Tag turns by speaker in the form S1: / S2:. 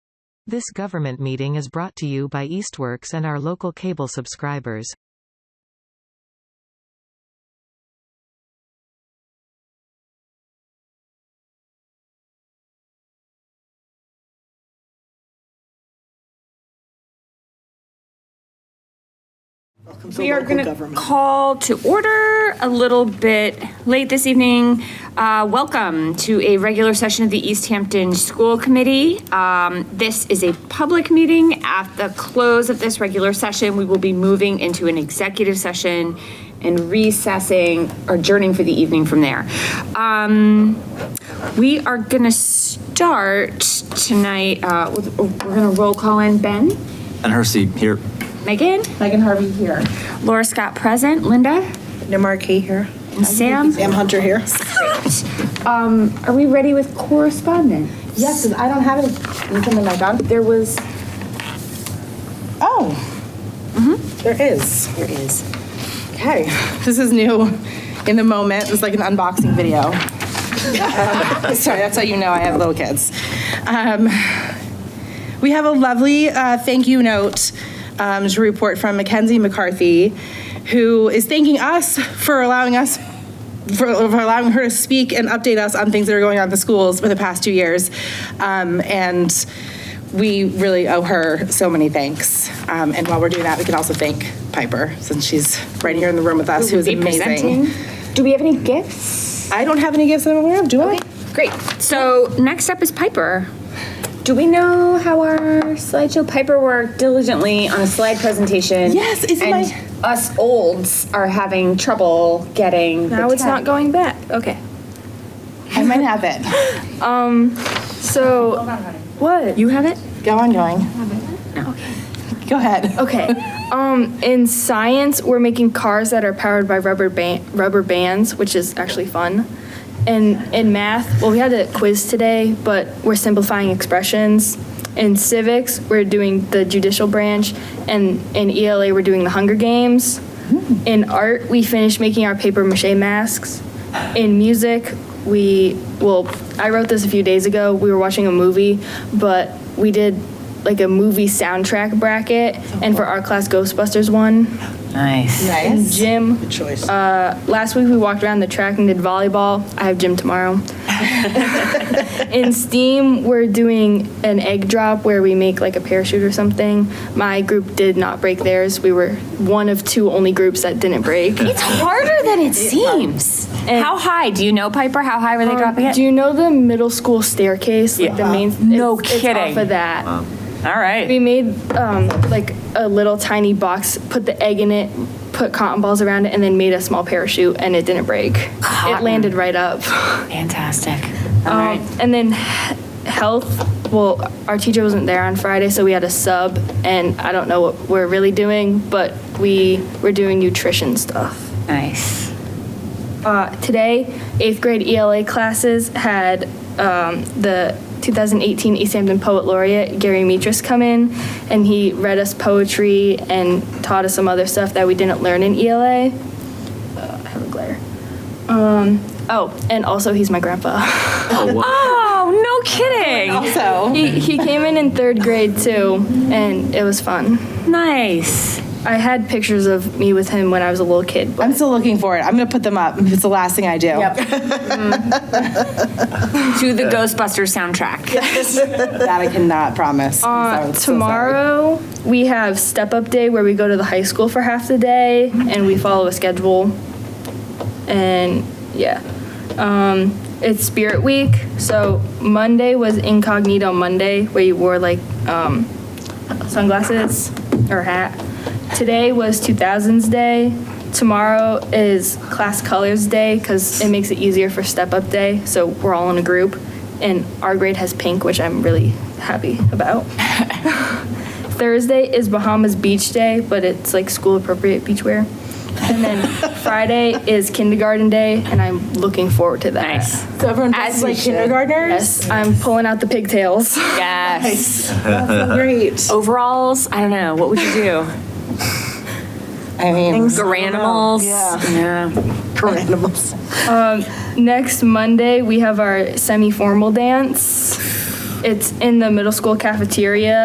S1: This government meeting is brought to you by Eastworks and our local cable subscribers.
S2: We are going to call to order a little bit late this evening. Uh, Welcome to a regular session of the East Hampton School Committee. Um, This is a public meeting. At the close of this regular session, we will be moving into an executive session and recessing, or adjourning for the evening from there. Um, We are going to start tonight, uh, with- we're going to roll call in Ben,
S3: And Hersey here.
S2: Megan,
S4: Megan Harvey here.
S2: Laura Scott present, Linda,
S4: Namarkey here.
S2: and Sam.
S4: Sam Hunter here.
S2: Um, are we ready with correspondence?
S4: Yes, 'cause I don't have any- anything in my bag. There was, oh, there is. There is. Okay, this is new in the moment. It's like an unboxing video. Sorry, that's how you know I have little kids. Um, we have a lovely uh, thank you note um, to report from Mackenzie McCarthy, who is thanking us for allowing us. For, for allowing her to speak and update us on things that are going on at the schools for the past two years. Um, and we really owe her so many thanks. Um, and while we're doing that, we can also thank Piper, since she's right here in the room with us, who is
S2: Be
S4: amazing.
S2: presenting. Do we have any gifts?
S4: I don't have any gifts that I'm aware of, do I?
S2: Great. So next up is Piper. Do we know how our slideshow Piper worked diligently on a slide presentation?
S4: Yes, is
S2: and
S4: my-
S2: us olds are having trouble getting.
S5: Now it's not going back. Okay.
S4: I might have it.
S5: So what? You have it?
S4: Go on going. Go ahead.
S5: Okay. um in science we're making cars that are powered by rubber band rubber bands, which is actually fun. And in math, well we had a quiz today, but we're simplifying expressions. In civics, we're doing the judicial branch and in ELA we're doing the Hunger Games. In art, we finished making our paper mache masks. In music, we, well, I wrote this a few days ago. We were watching a movie, but we did like a movie soundtrack bracket, and for our class, Ghostbusters won.
S4: Nice.
S5: Gym. Good choice. Uh, last week we walked around the track and did volleyball. I have gym tomorrow. In STEAM, we're doing an egg drop where we make like a parachute or something. My group did not break theirs. We were one of two only groups that didn't break.
S2: It's harder than it seems. How high? Do you know Piper? How high were they dropping it?
S5: Do you know the middle school staircase? Like the main.
S2: No
S5: it's- it's
S2: kidding.
S5: off of that.
S2: All right.
S5: We made um, like a little tiny box, put the egg in it, put cotton balls around it, and then made a small parachute, and it didn't break. It landed right up.
S2: Fantastic. All
S5: Um,
S2: right.
S5: and then he- health. Well, our teacher wasn't there on Friday, so we had a sub, and I don't know what we're really doing, but we were doing nutrition stuff.
S2: Nice.
S5: Uh, today, eighth grade ELA classes had um, the 2018 East Hampton Poet Laureate Gary Metris come in, and he read us poetry and taught us some other stuff that we didn't learn in ELA. Uh, I have a glare. Um, oh, and also he's my grandpa.
S2: Oh, no kidding.
S4: So,
S5: he, he came in in third grade too, and it was fun.
S2: Nice.
S5: I had pictures of me with him when I was a little kid, but
S4: I'm still looking for it. I'm going to put them up. It's the last thing I do.
S2: to the Ghostbusters soundtrack.
S4: That I cannot promise. I'm
S5: Uh,
S4: so- so sorry.
S5: tomorrow we have step up day where we go to the high school for half the day and we follow a schedule and yeah um, it's spirit week so monday was incognito monday where you wore like um, sunglasses or hat today was 2000s day tomorrow is class colors day because it makes it easier for step up day so we're all in a group and our grade has pink which i'm really happy about Thursday is Bahamas Beach Day, but it's like school appropriate beach wear. And then Friday is kindergarten day, and I'm looking forward to that.
S2: Nice.
S4: So everyone
S2: As
S4: dresses
S2: we
S4: like
S2: should.
S4: kindergartners?
S5: Yes, I'm pulling out the pigtails.
S2: Yes.
S4: Great.
S2: Overalls? I don't know. What would you do?
S4: I mean,
S2: Garanimals? Yeah.
S5: Next Monday, we have our semi formal dance. It's in the middle school cafeteria.